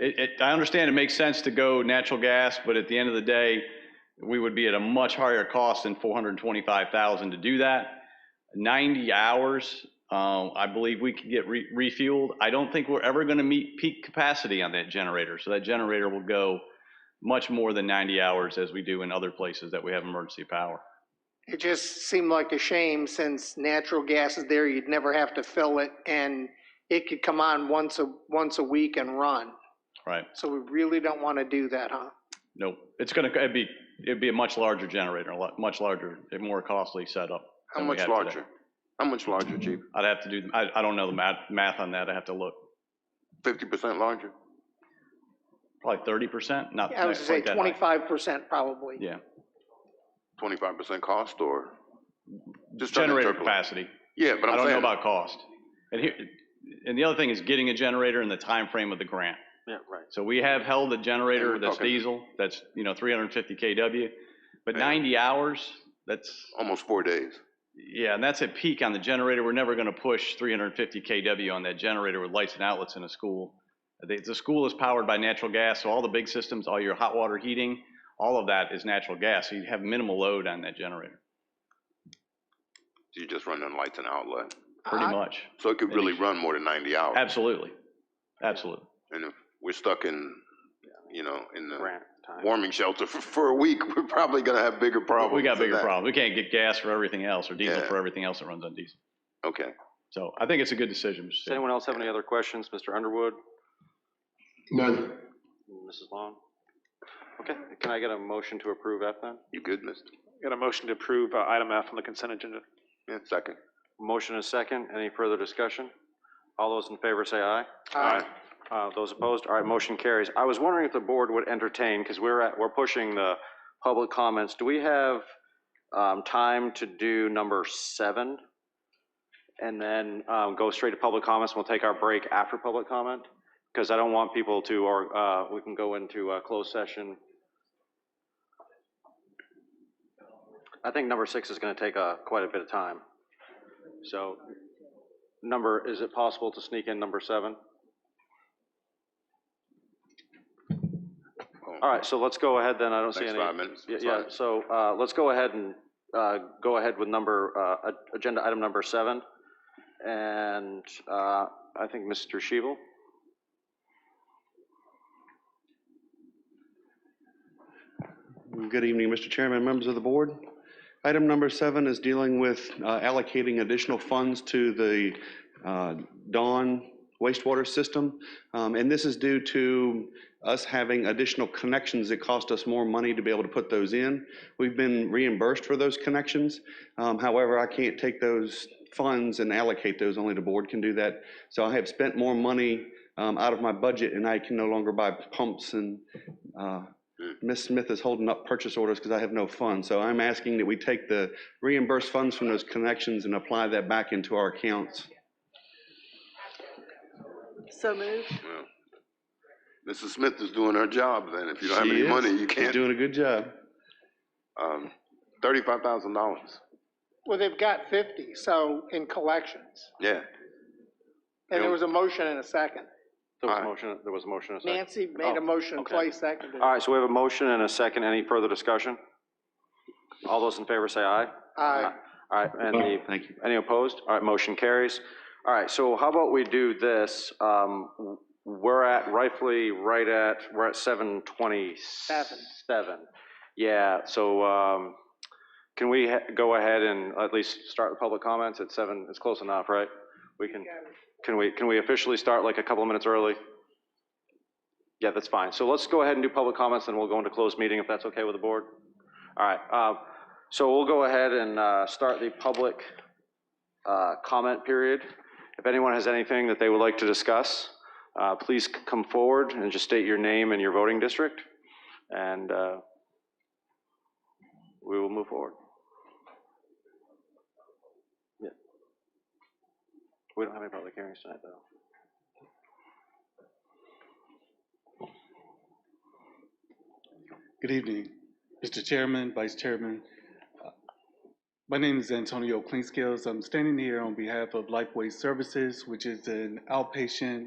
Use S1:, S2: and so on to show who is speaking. S1: it, it, I understand it makes sense to go natural gas, but at the end of the day, we would be at a much higher cost than 425,000 to do that. 90 hours, um, I believe we could get re- refueled. I don't think we're ever going to meet peak capacity on that generator. So that generator will go much more than 90 hours as we do in other places that we have emergency power.
S2: It just seemed like a shame since natural gas is there, you'd never have to fill it and it could come on once a, once a week and run.
S1: Right?
S2: So we really don't want to do that, huh?
S1: Nope. It's going to, it'd be, it'd be a much larger generator, a lot, much larger, a more costly setup.
S3: How
S1: than we
S3: much
S1: have today.
S3: larger? How much larger, chief?
S1: I'd have to do, I, I don't know the math, math on that. I have to look.
S3: Fifty percent larger?
S1: Probably 30%, not
S2: I was
S1: not
S2: gonna say
S1: quite that high.
S2: twenty-five percent probably.
S1: Yeah.
S3: Twenty-five percent cost or? Just trying to
S1: Generator
S3: interpolate.
S1: capacity.
S3: Yeah, but
S1: I
S3: I'm
S1: don't know
S3: saying.
S1: about cost. And here, and the other thing is getting a generator and the time frame of the grant.
S3: Yeah, right.
S1: So we have held a
S3: And
S1: generator
S3: we're
S1: that's
S3: talking-
S1: diesel, that's, you know, 350 KW, but
S3: Yeah.
S1: 90 hours, that's,
S3: Almost four days.
S1: yeah, and that's at peak on the generator. We're never going to push 350 KW on that generator with lights and outlets in a school. The, the school is powered by natural gas, so all the big systems, all your hot water heating, all of that is natural gas. So you have minimal load on that generator,
S3: You just run on lights and outlet.
S1: pretty
S2: I-
S1: much.
S3: So it could
S1: And
S3: really
S1: if-
S3: run more than ninety hours.
S1: Absolutely, absolutely.
S3: And if we're stuck in, you know, in the
S4: grant time.
S3: warming shelter for, for a week, we're probably gonna have bigger problems.
S1: We got
S3: than
S1: bigger
S3: that.
S1: problems. We can't get gas for everything else or diesel
S3: Yeah.
S1: for everything else that runs on diesel.
S3: Okay.
S1: So I think it's a good decision, Mr.
S4: Does
S1: Chairman.
S4: anyone else have any other questions? Mr. Underwood,
S5: None.
S4: Mrs. Long? Okay, can I get a motion to approve F then?
S3: You good, mister?
S6: Got a motion to approve uh, item F on the consent agenda.
S3: Yeah, second.
S4: Motion is second. Any further discussion? All those in favor say aye.
S2: Uh,
S4: Uh, Those opposed? All right, motion carries. I was wondering if the board would entertain, because we're at, we're pushing the public comments. Do we have um, time to do number seven? And then um, go straight to public comments. We'll take our break after public comment? Because I don't want people to, or uh, we can go into a closed session. I think number six is going to take uh, quite a bit of time. So number, is it possible to sneak in number seven? All right, so let's go ahead then, I don't see
S3: Next
S4: any.
S3: five minutes.
S4: Yeah,
S3: Sorry.
S4: yeah, so uh, let's go ahead and, uh, go ahead with number, uh, a- agenda item number seven. And uh, I think Mr. Shebel?
S7: Good evening, Mr. Chairman, members of the board. Item number seven is dealing with uh, allocating additional funds to the uh, Dawn wastewater system. Um, And this is due to us having additional connections that cost us more money to be able to put those in. We've been reimbursed for those connections. Um, However, I can't take those funds and allocate those, only the board can do that. So I have spent more money um, out of my budget, and I can no longer buy pumps and uh, Ms. Smith is holding up purchase orders because I have no funds. So I'm asking that we take the reimbursed funds from those connections and apply that back into our accounts.
S8: So moved.
S3: Well, Mrs. Smith is doing her job then. If you don't have
S7: She
S3: any
S7: is.
S3: money, you
S7: She's
S3: can't,
S7: doing a good job.
S3: um, thirty-five thousand dollars.
S2: Well, they've got fifty, so in collections.
S3: Yeah.
S2: And
S3: Yeah.
S2: there was a motion and a second.
S4: There was
S3: Aye.
S4: a motion, there was a motion and a second.
S2: Nancy made a
S4: Oh,
S2: motion,
S4: okay.
S2: Clay seconded it.
S4: All right, so we have a motion and a second. Any further discussion? All those in favor say aye.
S2: Aye.
S4: All right, and the
S7: Thank you.
S4: Any opposed? All right, motion carries. All right, so how about we do this? um, We're at rightfully, right at, we're at 727. Yeah, so um, can we ha- go ahead and at least start with public comments at 7? It's close enough, right? We can, can we, can we officially start like a couple of minutes early? Yeah, that's fine. So let's go ahead and do public comments, and we'll go into closed meeting if that's okay with the board. All right, uh, so we'll go ahead and uh, start the public uh, comment period. If anyone has anything that they would like to discuss, uh, please c- come forward and just state your name and your voting district, and uh, we will move forward. Yeah. We don't have any public hearings tonight, though.
S9: Good evening, Mr. Chairman, Vice Chairman. Uh, My name is Antonio Cleanscales. I'm standing here on behalf of Lifeway Services, which is an outpatient